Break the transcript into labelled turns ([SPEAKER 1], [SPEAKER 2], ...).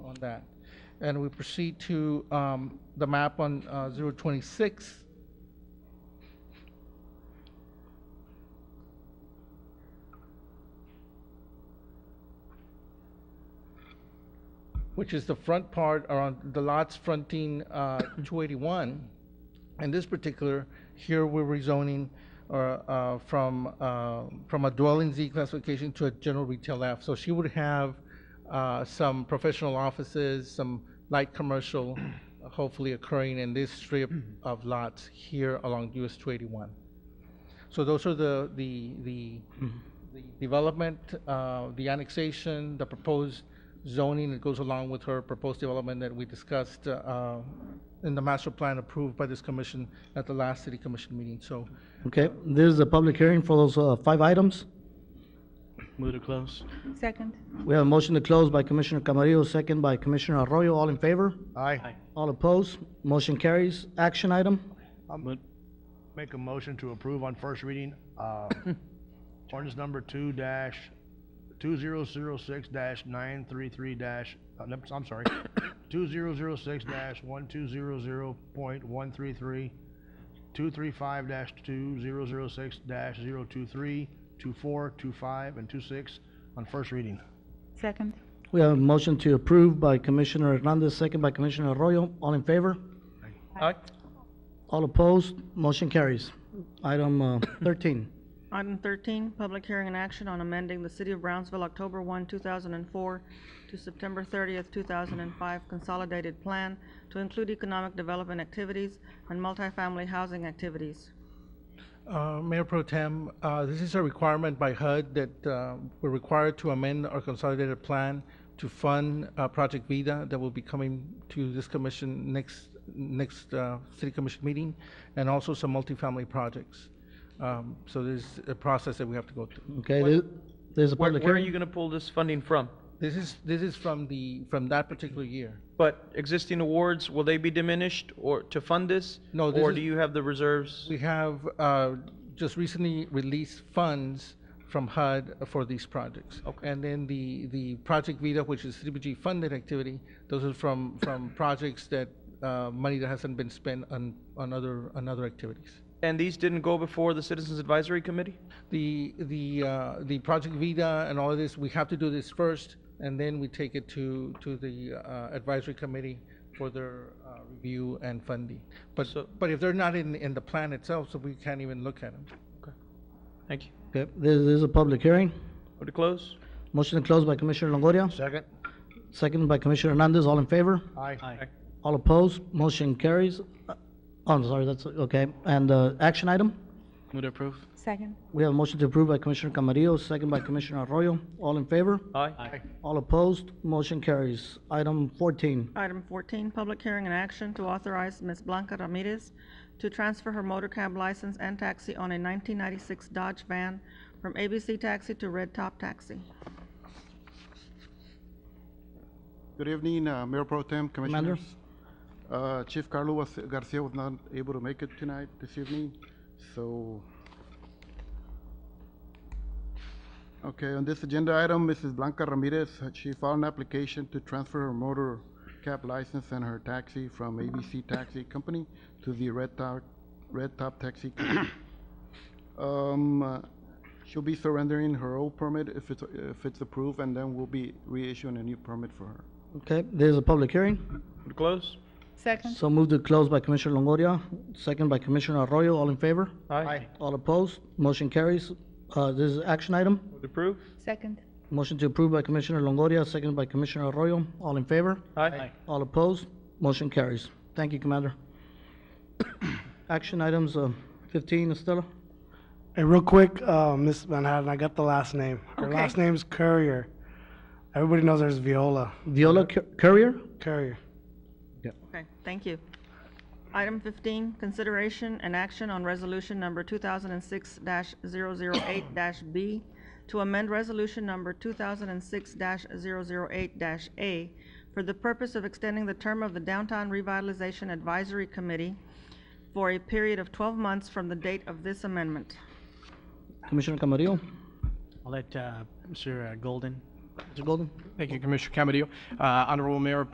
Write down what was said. [SPEAKER 1] that. And we proceed to um, the map on uh, 026. Which is the front part around the lots fronting uh, 281. In this particular, here we're rezoning or, uh, from, uh, from a dwelling Z classification to a general retail F. So she would have uh, some professional offices, some light commercial, uh, hopefully occurring in this strip of lots here along US 281. So those are the, the, the the development, uh, the annexation, the proposed zoning that goes along with her proposed development that we discussed uh, in the master plan approved by this commission at the last city commission meeting. So
[SPEAKER 2] Okay, this is a public hearing for those uh, five items.
[SPEAKER 3] Move to close.
[SPEAKER 4] Second.
[SPEAKER 2] We have a motion to close by Commissioner Camarillo, second by Commissioner Arroyo. All in favor?
[SPEAKER 5] Aye.
[SPEAKER 2] All opposed? Motion carries. Action item?
[SPEAKER 6] Um,
[SPEAKER 3] Mo-
[SPEAKER 5] Make a motion to approve on first reading, uh, ordinance number two dash, two zero zero six dash nine three three dash, uh, no, I'm sorry, two zero zero six dash one two zero zero point one three three, two three five dash two zero zero six dash zero two three, two four, two five, and two six on first reading.
[SPEAKER 4] Second.
[SPEAKER 2] We have a motion to approve by Commissioner Hernandez, second by Commissioner Arroyo. All in favor?
[SPEAKER 1] Aye.
[SPEAKER 2] All opposed? Motion carries. Item uh, thirteen.
[SPEAKER 7] Item thirteen, public hearing and action on amending the City of Brownsville October one, two thousand and four to September thirtieth, two thousand and five Consolidated Plan to include economic development activities and multifamily housing activities.
[SPEAKER 1] Uh, Mayor Pro Tem, uh, this is a requirement by HUD that uh, we're required to amend our consolidated plan to fund uh, Project Vida that will be coming to this commission next, next uh, city commission meeting, and also some multifamily projects. Um, So there's a process that we have to go through.
[SPEAKER 2] Okay, this, this is a
[SPEAKER 6] Where,
[SPEAKER 2] public
[SPEAKER 6] where are
[SPEAKER 2] hearing.
[SPEAKER 6] you gonna pull this funding from?
[SPEAKER 1] This is, this is from the, from that particular year.
[SPEAKER 6] But existing awards, will they be diminished or to fund this?
[SPEAKER 1] No, this
[SPEAKER 6] Or
[SPEAKER 1] is-
[SPEAKER 6] do you have the reserves?
[SPEAKER 1] We have uh, just recently released funds from HUD for these projects.
[SPEAKER 6] Okay.
[SPEAKER 1] And then the, the Project Vita, which is CDBG funded activity, those are from, from projects that, uh, money that hasn't been spent on, on other, on other activities.
[SPEAKER 6] And these didn't go before the Citizens Advisory Committee?
[SPEAKER 1] The, the, uh, the Project Vita and all of this, we have to do this first, and then we take it to, to the uh, advisory committee for their uh, review and funding. But,
[SPEAKER 6] So-
[SPEAKER 1] but if they're not in, in the plan itself, so we can't even look at them.
[SPEAKER 6] Thank you.
[SPEAKER 2] Okay, this, this is a public hearing.
[SPEAKER 6] Move to close?
[SPEAKER 2] Motion to close by Commissioner Longoria,
[SPEAKER 5] Second?
[SPEAKER 2] second by Commissioner Hernandez. All in favor?
[SPEAKER 5] Aye.
[SPEAKER 3] Aye.
[SPEAKER 2] All opposed? Motion carries. Uh, Oh, I'm sorry, that's, okay. And, uh, action item?
[SPEAKER 3] Move to approve.
[SPEAKER 4] Second.
[SPEAKER 2] We have a motion to approve by Commissioner Camarillo, second by Commissioner Arroyo. All in favor?
[SPEAKER 6] Aye.
[SPEAKER 2] All opposed? Motion carries. Item fourteen.
[SPEAKER 7] Item fourteen, public hearing and action to authorize Ms. Blanca Ramirez to transfer her motor cab license and taxi on a nineteen ninety-six Dodge van from ABC Taxi to Red Top Taxi.
[SPEAKER 8] Good evening, uh, Mayor Pro Tem,
[SPEAKER 2] Commander.
[SPEAKER 8] Commissioners. Uh, Chief Carlo was- Garcia was not able to make it tonight, this evening, so... Okay, on this agenda item, Mrs. Blanca Ramirez, uh, she filed an application to transfer her motor cab license and her taxi from ABC Taxi Company to the Red Top, Red Top Taxi Company. Um, uh, she'll be surrendering her old permit if it's, if it's approved, and then we'll be reissuing a new permit for her.
[SPEAKER 2] Okay, this is a public hearing.
[SPEAKER 6] Move to close?
[SPEAKER 4] Second.
[SPEAKER 2] So moved to close by Commissioner Longoria, second by Commissioner Arroyo. All in favor?
[SPEAKER 6] Aye.
[SPEAKER 2] All opposed? Motion carries. Uh, this is action item.
[SPEAKER 6] Move to approve?
[SPEAKER 4] Second.
[SPEAKER 2] Motion to approve by Commissioner Longoria, second by Commissioner Arroyo. All in favor?
[SPEAKER 6] Aye.
[SPEAKER 2] All opposed? Motion carries. Thank you, Commander. Action items, uh, fifteen, Estela.
[SPEAKER 9] Hey, real quick, uh, Miss Manhattan, I got the last name. Her last name's Courier. Everybody knows there's Viola.
[SPEAKER 2] Viola Cur- Courier?
[SPEAKER 9] Courier.
[SPEAKER 7] Okay, thank you. Item fifteen, consideration and action on resolution number two thousand and six 8 B to amend resolution number two thousand and six 8 A for the purpose of extending the term of the Downtown Revitalization Advisory Committee for a period of twelve months from the date of this amendment.
[SPEAKER 2] Commissioner Camarillo?
[SPEAKER 3] I'll let uh, Mr. Golden.
[SPEAKER 2] Mr. Golden?
[SPEAKER 10] Thank you, Commissioner Camarillo. Uh, Honorable Mayor